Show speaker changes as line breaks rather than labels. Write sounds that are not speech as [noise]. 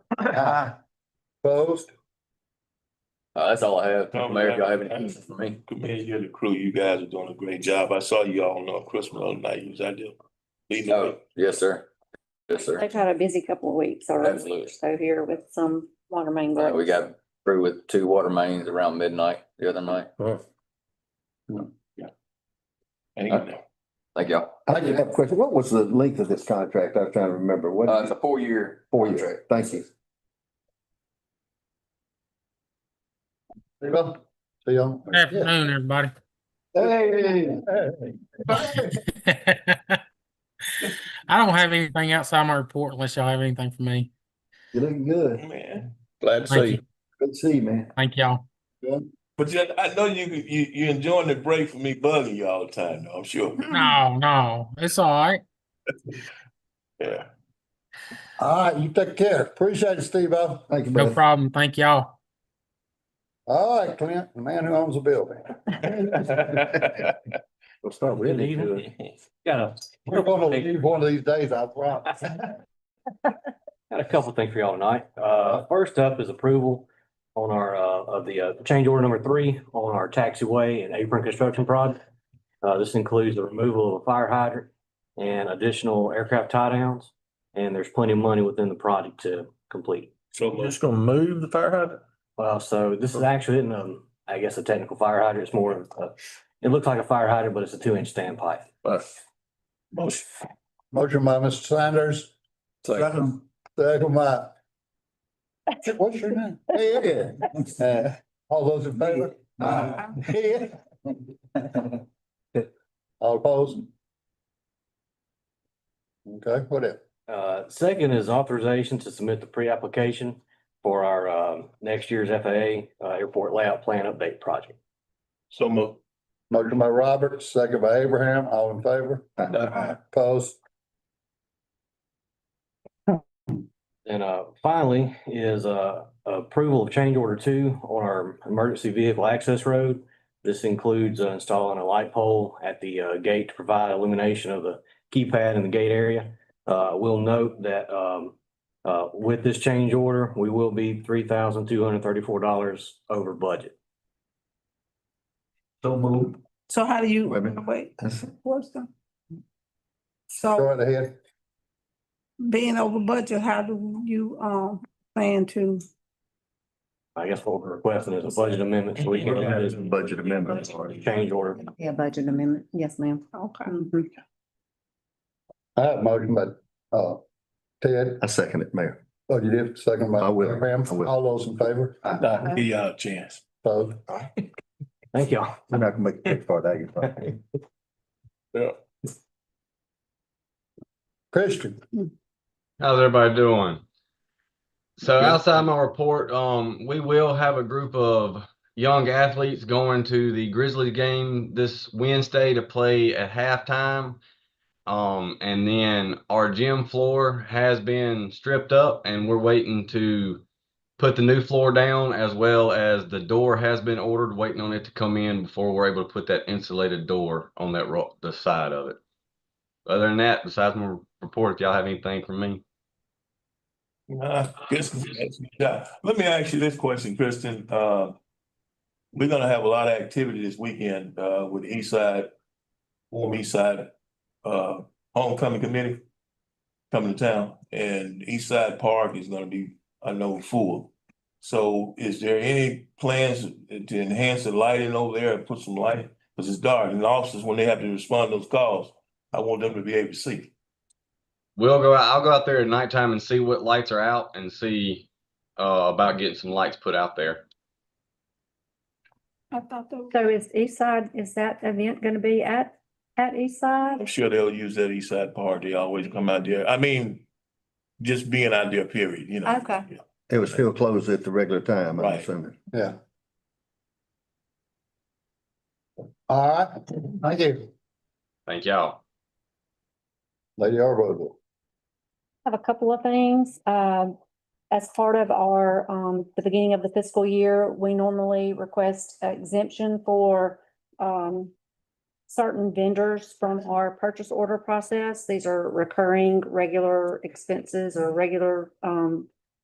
Aye. Opposed?
Uh, that's all I have.
No,
Mayor, if y'all have any
that-
questions for me?
Commend you and the crew. You guys are doing a great job. I saw you all on uh, Christmas on night. You was out there. leading the
Oh.
No,
way.
Oh, yes, sir. Yes, sir.
They've had a busy couple of weeks already,
Absolutely.
so here with some water main
Uh,
breaks.
we got through with two water mains around midnight the other night.
And you
Uh-huh.
know,
Thank y'all.
I just have a question. What was the length of this contract? I was trying to remember. What?
Uh, it's a four-year.
Four years. Thank you.
There you go. See y'all.
Good Afternoon, everybody. [laughs]
Hey.
I don't have anything outside my report unless y'all have anything for me.
You looking good.
man.
Glad to
Thank
see
you.
you.
Good to see you, man.
Thank y'all.
But you, I know you, you, you enjoying the break from me bugging you all the time, though,
[laughs]
I'm sure.
No, no, it's all right.
Yeah. [laughs]
All right, you take care. Appreciate it, Steve-O.
Thank you,
No
brother.
problem. Thank y'all.
All right, Clint, the man who owns the building.
We'll start with it.
Got
We're gonna leave one of these days, I promise.
a, got a couple things for y'all tonight. Uh, first up is approval on our, uh, of the, uh, change order number three on our taxiway and apron construction project. Uh, this includes the removal of a fire hydrant and additional aircraft tie downs. And there's plenty of money within the project to complete.
So much.
Just gonna move the fire hydrant?
Well, so this is actually, isn't, um, I guess a technical fire hydrant. It's more of a, it looks like a fire hydrant, but it's a two inch standpipe.
Right.
Motion.
Motion by Mr. Sanders,
So,
second by. What's your name? Ed. Uh, All those in favor? Uh, Ed. All opposed? Okay, whatever.
Uh, second is authorization to submit the pre-application for our, um, next year's FAA, uh, airport layout plan update project.
So much.
Motion by Roberts, second by Abraham, all in favor?
Aye.
Opposed?
And, uh, finally is, uh, approval of change order two on our emergency vehicle access road. This includes uh, installing a light pole at the, uh, gate to provide illumination of the keypad in the gate area. Uh, we'll note that, um, uh, with this change order, we will be three thousand two hundred thirty-four dollars over budget.
Don't move.
So how do you,
Wait a minute.
wait, what's the?
Go
So
right ahead.
being over budget, how do you, um, plan to?
I guess what we're requesting is a budget amendment, so we can look at it,
Budget amendment.
change order.
Yeah, budget amendment. Yes, ma'am.
Okay.
Mhm.
I have motion by, uh, Ted,
I second it, Mayor.
oh, you did, second by
I will.
Abraham,
I will.
all those in favor?
Give y'all a chance.
Opposed?
Thank y'all.
We're not gonna make a big part out of
[laughs]
it.
Yeah.
Christian,
How's everybody doing? So
Good.
outside my report, um, we will have a group of young athletes going to the Grizzlies game this Wednesday to play at halftime. Um, and then our gym floor has been stripped up and we're waiting to put the new floor down as well as the door has been ordered, waiting on it to come in before we're able to put that insulated door on that rock, the side of it. Other than that, besides my report, if y'all have anything for me.
Nah, this is- yeah. let me ask you this question, Kristen. Uh, we're gonna have a lot of activity this weekend, uh, with the East Side, Warm East Side, uh, Homecoming Committee coming to town, and East Side Park is gonna be, I know, full. So is there any plans to enhance the lighting over there and put some light? Cause it's dark, and the officers, when they have to respond to those calls, I want them to be able to see.
We'll go out. I'll go out there at nighttime and see what lights are out and see uh, about getting some lights put out there.
I thought that.
So is East Side, is that event gonna be at, at East
I'm
Side?
sure they'll use that east side part. They always come out there. I mean, just being out there, period, you know.
Okay.
It was still closed at the regular time, I'm
Right.
assuming.
yeah. All right, thank you,
Thank y'all.
Lady Arbuckle.
Have a couple of things. Um, as part of our, um, the beginning of the fiscal year, we normally request exemption for, um, certain vendors from our purchase order process. These are recurring, regular expenses or regular, um,